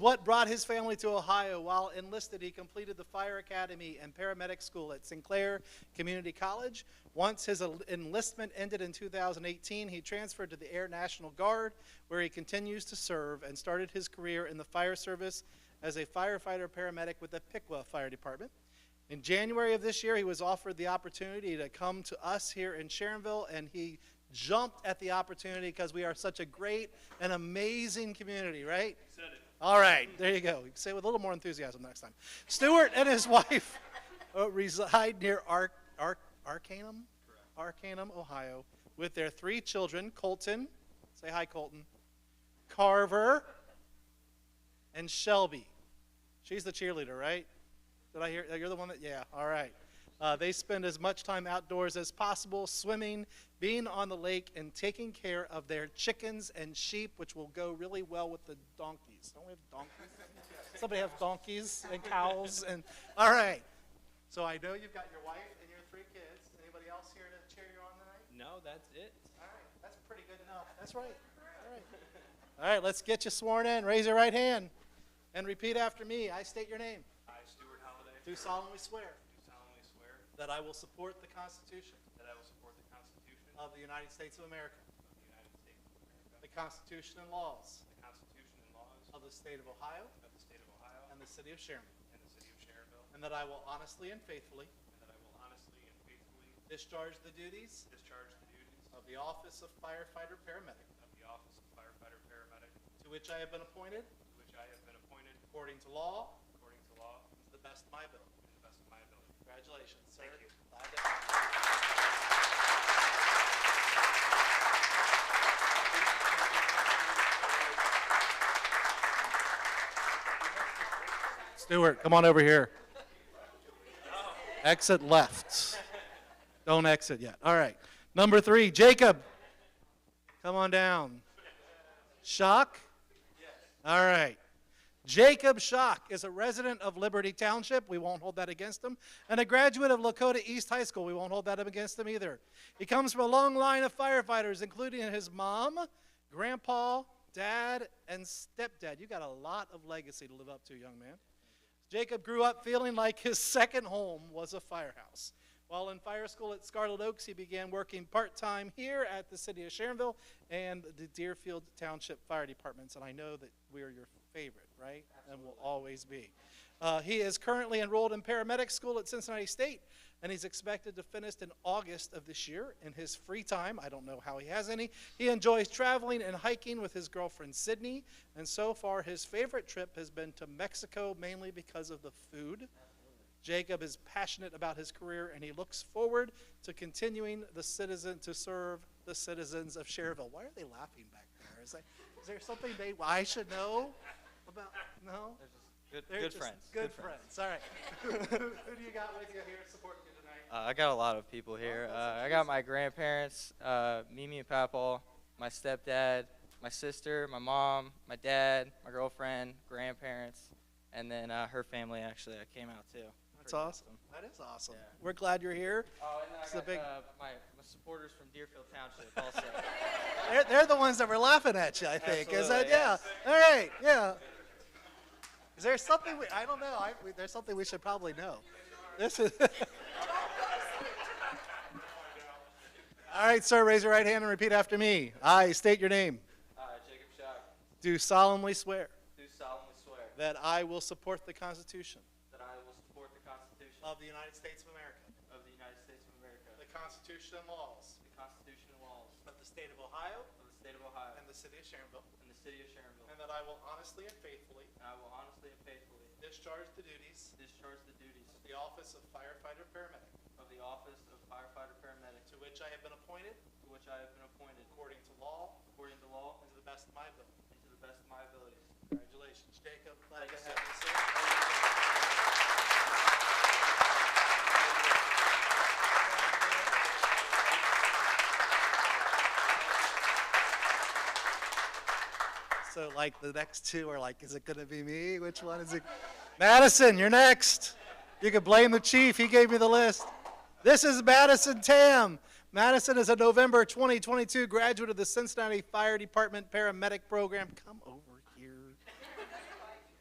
What brought his family to Ohio? While enlisted, he completed the fire academy and paramedic school at Sinclair Community College. Once his el- enlistment ended in 2018, he transferred to the Air National Guard, where he continues to serve and started his career in the fire service as a firefighter paramedic with the Piqua Fire Department. In January of this year, he was offered the opportunity to come to us here in Sharonville, and he jumped at the opportunity because we are such a great and amazing community, right? All right, there you go. You can Say it with a little more enthusiasm next time. Stewart and his wife uh, reside near Ar- Ar- Arcanum, Arcanum, Ohio, with their three children, Colton, say hi, Colton, Carver, and Shelby. She's the cheerleader, right? Did I hear? oh, You're the one that, yeah, all right. Uh, they spend as much time outdoors as possible, swimming, being on the lake, and taking care of their chickens and sheep, which will go really well with the donkeys. Don't we have donkeys? Somebody have donkeys and cows and, all right. So I know you've got your wife and your three kids. Anybody else here to cheer you on tonight? No, that's it. All right, that's pretty good enough. That's right. All right. All right, let's get you sworn in. Raise your right hand and repeat after me. I state your name. I, Stuart Holliday, Do do solemnly swear solemnly swear that I will support the Constitution that I will support the Constitution of of the United States of America, the United States of America, the Constitution and laws the Constitution and laws of the state of Ohio of the state of Ohio and the city of Sharon, and the city of Sharonville, and that I will honestly and faithfully and that I will honestly and faithfully discharge the duties discharge the duties of the office of firefighter paramedic of the office of firefighter paramedic to to which I have been appointed which I have been appointed according to law according to law and to the best of my ability. to the best of my ability. Congratulations, sir. Thank you. Bye, Dad. Stewart, come on over here. Exit left. Don't exit yet. All right. Number three, Jacob. Come on down. Shock? All right. Jacob Schock is a resident of Liberty Township. We won't hold that against him. And a graduate of Lakota East High School. We won't hold that up against him either. He comes from a long line of firefighters, including his mom, grandpa, dad, and stepdad. You got a lot of legacy to live up to, young man. Jacob grew up feeling like his second home was a firehouse. While in fire school at Scarlet Oaks, he began working part time here at the city of Sharonville and the Deerfield Township Fire Departments. And I know that we are your favorite, right? And will always be. Uh, he is currently enrolled in paramedic school at Cincinnati State, and he's expected to finish in August of this year. In his free time, I don't know how he has any, he enjoys traveling and hiking with his girlfriend Sydney, and so far his favorite trip has been to Mexico mainly because of the food. Jacob is passionate about his career and he looks forward to continuing the citizen to serve the citizens of Cherville. Why are they laughing back there? Is, that, is there something they I should know about? No. Good, They're good just friends. Good, friends. All right. Who do you got with you here supporting you tonight? Uh, I got a lot of people here. that's Uh, I got my grandparents, uh, Mimi and Papaw, my stepdad, my sister, my mom, my dad, my girlfriend, grandparents, and then uh, her family actually that came out too. That's Pretty awesome. That is awesome. Yeah. We're glad you're here. Oh, and then I It's a got big- uh, my, my supporters from Deerfield Township also. They're, they're the ones that were laughing at you, I think. is that Absolutely, yeah? yes. All right, yeah. Is there something we? I don't know. I, we, there's something we should probably know. This is. All right, sir. Raise your right hand and repeat after me. I state your name. uh, Jacob Shock, Do solemnly swear do solemnly swear that I will support the Constitution that I will support the Constitution of the United States of America, of the United States of America, the Constitution and laws the Constitution and laws of the State of Ohio of the State of Ohio and the City of Sharonville, and the City of Sharonville, and that I will honestly and faithfully and I will honestly and faithfully discharge the duties discharge the duties The office of firefighter paramedic, of the office of firefighter paramedic to which I have been appointed to which I have been appointed according to law according to law and to the best of my ability. and to the best of my abilities. Congratulations, Jacob. Glad to have you, sir. So like the next two are like, is it gonna be me? Which one is it? Madison, you're next. You can blame the chief. He gave me the list. This is Madison Tam. Madison is a November 2022 graduate of the Cincinnati Fire Department paramedic program. Come over